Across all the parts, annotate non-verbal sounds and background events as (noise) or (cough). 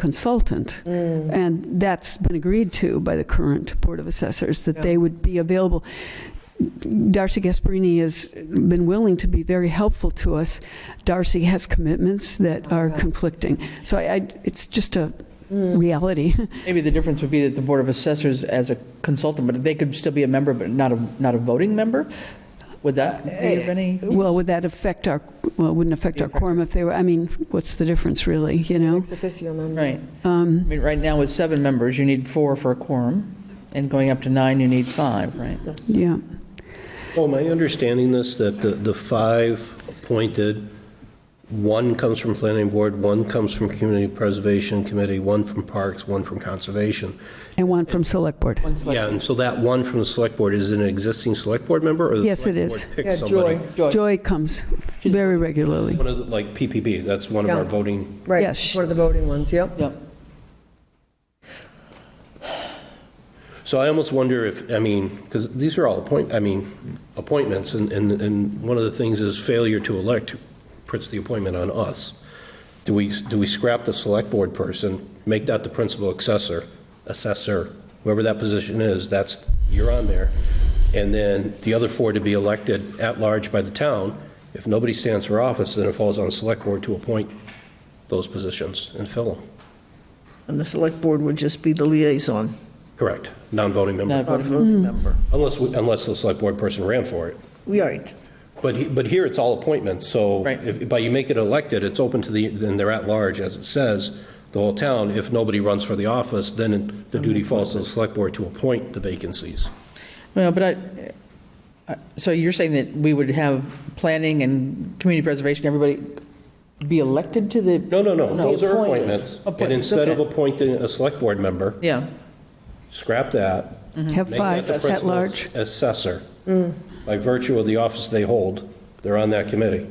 consultant. Mm. And that's been agreed to by the current Board of Assessors, that they would be available. Darcy Gasparini has been willing to be very helpful to us. Darcy has commitments that are conflicting. So I, I- it's just a reality. Maybe the difference would be that the Board of Assessors as a consultant, but they could still be a member, but not a, not a voting member? Would that be of any? Well, would that affect our, well, it wouldn't affect our quorum if they were, I mean, what's the difference really, you know? Ex officio member. Right. I mean, right now with seven members, you need four for a quorum, and going up to nine, you need five, right? Yeah. Well, my understanding this, that the, the five appointed, one comes from planning board, one comes from community preservation committee, one from parks, one from conservation. And one from Select Board. One select- Yeah, and so that one from the select board is an existing select board member or? the Yes, it select is. board picks Yeah, somebody? Joy, Joy. Joy comes very regularly. One of the, like PPP, that's one of Yeah. our voting. Right, Yes. it's one of the voting ones, yep. Yep. So I almost wonder if, I mean, because these are all appoint, I mean, appointments and, and, and one of the things is failure to elect puts the appointment on us. Do we, do we scrap the select board person, make that the principal assessor, assessor, whoever that position is, that's, you're on there. And then the other four to be elected at large by the town. If nobody stands for office, then it falls on the select board to appoint those positions and fill them. And the select board would just be the Mm. liaison, Correct, non-voting member, Not not a voting. voting member. unless, we- unless the select board person ran for it. We aren't. But, he- but here it's all appointments, so Right. if, but you make it elected, it's open to the, and they're at large, as it says, the whole town. If nobody runs for the office, then the duty falls to the select board to appoint the vacancies. Well, but I, I- so you're saying that we would have planning and community preservation, everybody be elected to the? No, no, no, No. those are Appointed. appointments. And Appointments, instead of okay. appointing a select board member, Yeah, scrap that. Have make that five the at principal large. Assessor, by virtue of the office they hold, they're on that committee.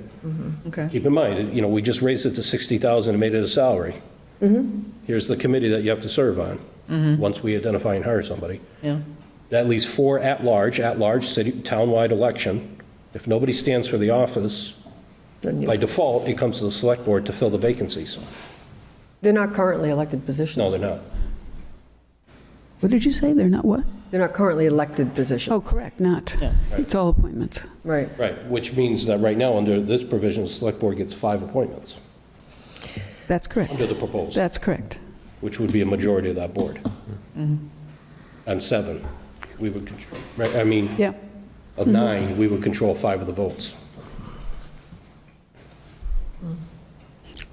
okay. Keep in mind, you know, we just raised it to 60,000 and made it a salary. Here's the committee that you have to serve on, once we identify and hire somebody. Yeah, That leaves four at-large, at-large city, townwide election. If nobody stands for the office, Then by you, default, it comes to the select board to fill the vacancies. They're not currently elected positions. No, they're not. What did you say? They're not what? They're not currently elected positions. Oh, correct, not. Yeah. It's all appointments. Oh. Right. Right, which means that right now, under this provision, the select board gets five appointments That's under correct. the proposal, That's correct. which would be a majority of that board. On seven, we would, control- right, I mean, Yeah. of Mm-hmm. nine, we would control five of the votes.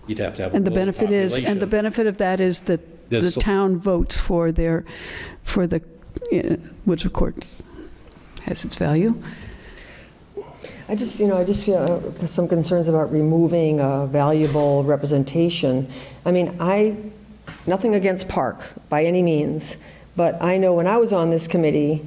You'd have to have. a Mm. And the willing benefit is, and the population. benefit of that is that the That's so- town votes for their, for the, eh, which of course has its value. I just, you know, I just feel uh, some concerns about removing uh, valuable representation. I mean, I, nothing against Park by any means, but I know when I was on this committee,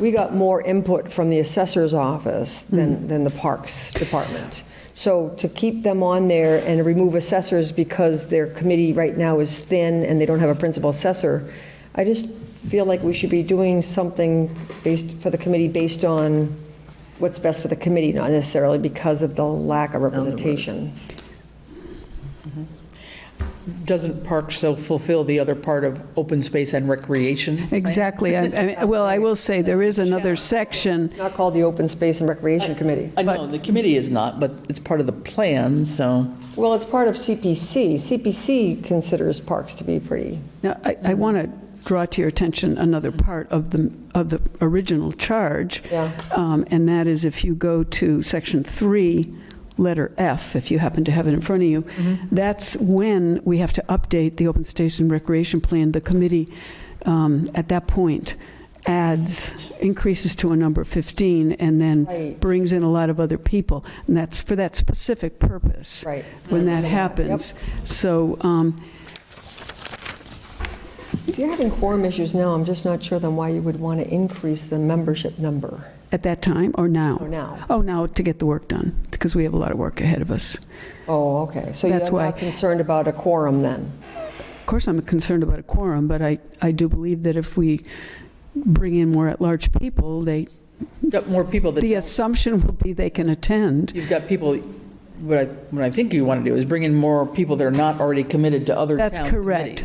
we got more input from the assessor's office than, than the Parks Department. So to keep them on there and remove assessors because their committee right now is thin and they don't have a principal assessor, I just feel like we should be doing something based, for the committee based on what's best for the committee, not necessarily because of the lack of representation. doesn't park so fulfill the other part of open space and recreation? Exactly. I- I (laughs) mean, Well, I will say, there is another section, It's not called the Open Space and Recreation Committee. I know, the committee is not, but it's part of the plan, so. Well, it's part of CPC. CPC considers parks to be pretty, now, I, I want to draw to your attention another part of the, of the original charge. Yeah. Um, And that is if you go to section three, letter F, if you happen to have it in front of you, Mm-hmm. that's when we have to update the open space and recreation plan. The committee, um, at that point, adds, increases to a number of 15, and then Right. brings in a lot of other people. And that's for that specific purpose. Right. When that Yep. happens. So, um, if you're having quorum issues now, I'm just not sure then why you would want to increase the membership number. at that time, or now? Oh, now. Oh, now, to get the work done, because we have a lot of work ahead of us. Oh, okay. So you're That's why- not concerned about a quorum then? Of course, I'm concerned about a quorum, but I, I do believe that if we bring in more at-large people, they, Got more people that, the assumption will be they can attend. you've got people what I, what I think you want to do is bring in more people that are not already committed to other town That's committees. correct.